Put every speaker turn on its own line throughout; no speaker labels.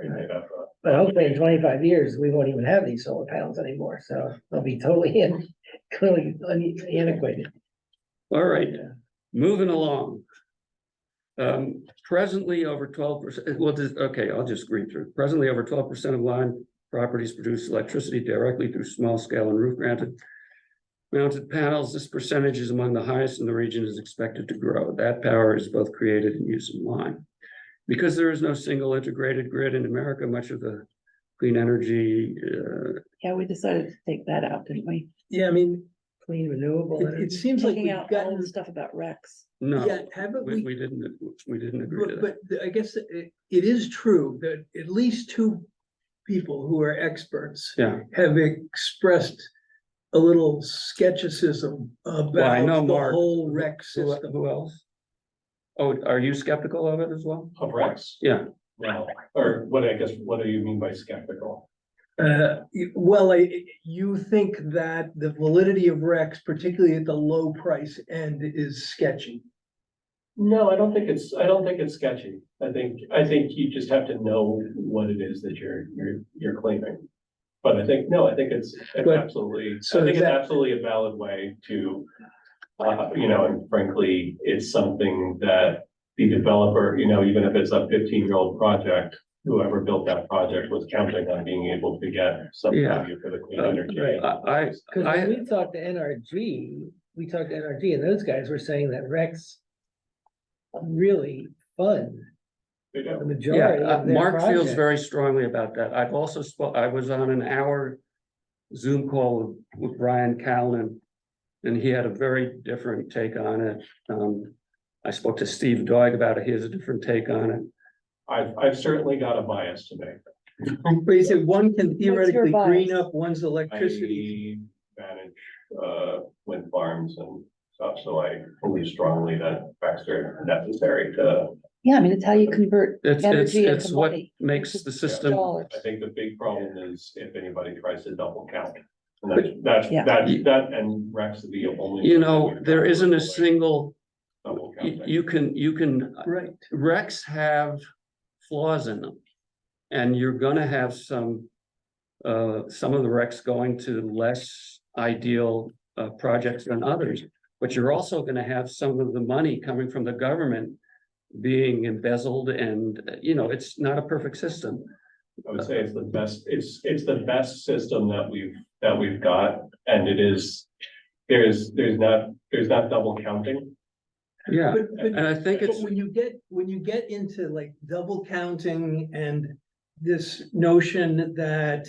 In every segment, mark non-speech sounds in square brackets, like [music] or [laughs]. think that's right.
But hopefully in twenty-five years, we won't even have these solar panels anymore, so they'll be totally [laughs] in, clearly antiquated.
All right, moving along. Um, presently over twelve percent, well, this- okay, I'll just read through. Presently over twelve percent of line properties produce electricity directly through small scale and roof mounted. Mounted panels, this percentage is among the highest in the region is expected to grow. That power is both created and used in line. Because there is no single integrated grid in America, much of the clean energy, uh,
Yeah, we decided to take that out, didn't we?
Yeah, I mean,
Clean renewable
it,
energy.
it seems like
Taking
we've
out all
gotten,
the stuff about Rex.
yeah,
no,
haven't
we,
we?
we didn't, we didn't agree to
But,
that.
but the- I guess it, it is true that at least two people who are experts
Yeah.
have expressed a little skepticism about
know
the
Mark-
whole rec
Who,
system.
who else? Oh, are you skeptical of it as well?
Of Rex?
Yeah.
No, or what, I guess, what do you mean by skeptical?
Uh, you- well, I, you think that the validity of recs, particularly at the low price end, is sketchy.
No, I don't think it's, I don't think it's sketchy. I think, I think you just have to know what it is that you're, you're, you're claiming. But I think, no, I think it's, it's
But-
absolutely, I
so
think
is
it's
that-
absolutely a valid way to, uh, you know, and frankly, it's something that the developer, you know, even if it's a fifteen-year-old project, whoever built that project was counting on being able to get some
Yeah.
value for the clean
Uh,
energy.
I, I,
Cause when
I,
we talked to NRG, we talked to NRG and those guys were saying that Rex really fund
You know?
the
yeah,
majority
uh,
of their
Mark feels
project.
very strongly about that. I've also spoke, I was on an hour Zoom call with with Brian Callen, and he had a very different take on it. Um, I spoke to Steve Doig about it. He has a different take on it.
I've, I've certainly got a bias to make.
But you said one can
your
theoretically green
bias?
up one's electricity.
I manage, uh, wind farms and stuff, so I believe strongly that facts are necessary to,
Yeah, I mean, it's how you convert
It's, it's,
energy
it's
into
what
money.
makes the system,
Dollars.
I think the big problem is if anybody tries to double count. And that's, that's,
Yeah.
that, that and Rex would be the only.
you know, there isn't a single,
Double
you-
counting.
you can, you can
Right.
Recs have flaws in them. And you're gonna have some, uh, some of the recs going to less ideal, uh, projects than others. But you're also gonna have some of the money coming from the government being embezzled and, uh, you know, it's not a perfect system.
I would say it's the best, it's, it's the best system that we've, that we've got, and it is, there's, there's not, there's not double counting.
Yeah,
But, but
and I think
But
it's,
when you get, when you get into like double counting and this notion that.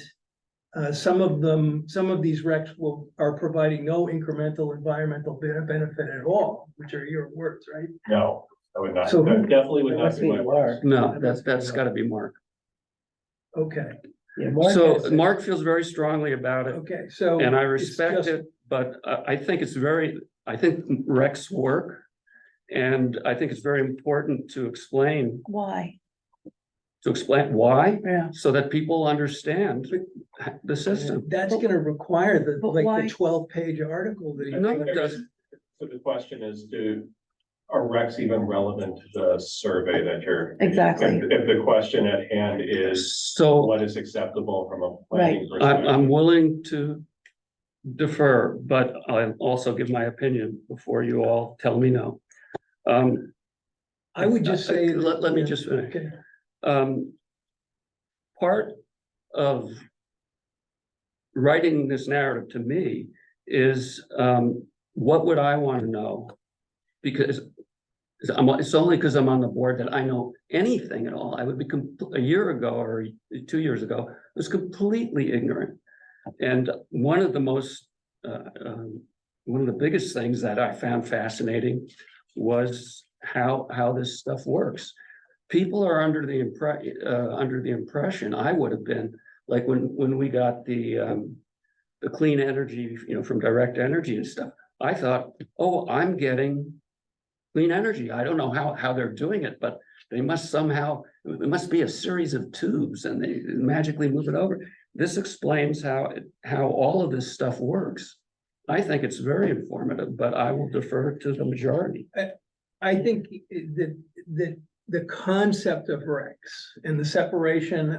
Uh, some of them, some of these recs will, are providing no incremental environmental be- benefit at all, which are your words, right?
No, I would not,
So who-
that definitely would
It
not
must
be
be
my.
Mark.
no, that's, that's gotta be Mark.
Okay,
Yeah, Mark
So
has a-
Mark feels very strongly about it.
okay, so.
And I
it's
respect
just-
it, but I, I think it's very, I think Rex work. And I think it's very important to explain,
Why?
to explain why,
Yeah.
so that people understand the system.
That's gonna require the,
But
like
why-
the twelve page article that.
I
he-
No,
think
it
there's-
doesn't.
So the question is, do, are recs even relevant to the survey that you're?
Exactly.
If, if the question at hand is
So
what is acceptable from a planning
I'm,
perspective?
I'm willing to defer, but I'll also give my opinion before you all tell me no. Um,
I would just say. that-
Let- let me
yeah,
just finish.
okay.
um, part of writing this narrative to me is, um, what would I want to know? Because it's- I'm, it's only because I'm on the board that I know anything at all. I would be, com- a year ago or two years ago, I was completely ignorant. And one of the most, uh, um, one of the biggest things that I found fascinating was how, how this stuff works people are under the impre- uh, under the impression, I would have been, like when, when we got the, um. The clean energy, you know, from direct energy and stuff, I thought, oh, I'm getting. Clean energy, I don't know how, how they're doing it, but they must somehow, it must be a series of tubes and they magically move it over. This explains how, it- how all of this stuff works. I think it's very informative, but I will defer to the majority.
I think that, that the concept of recs and the separation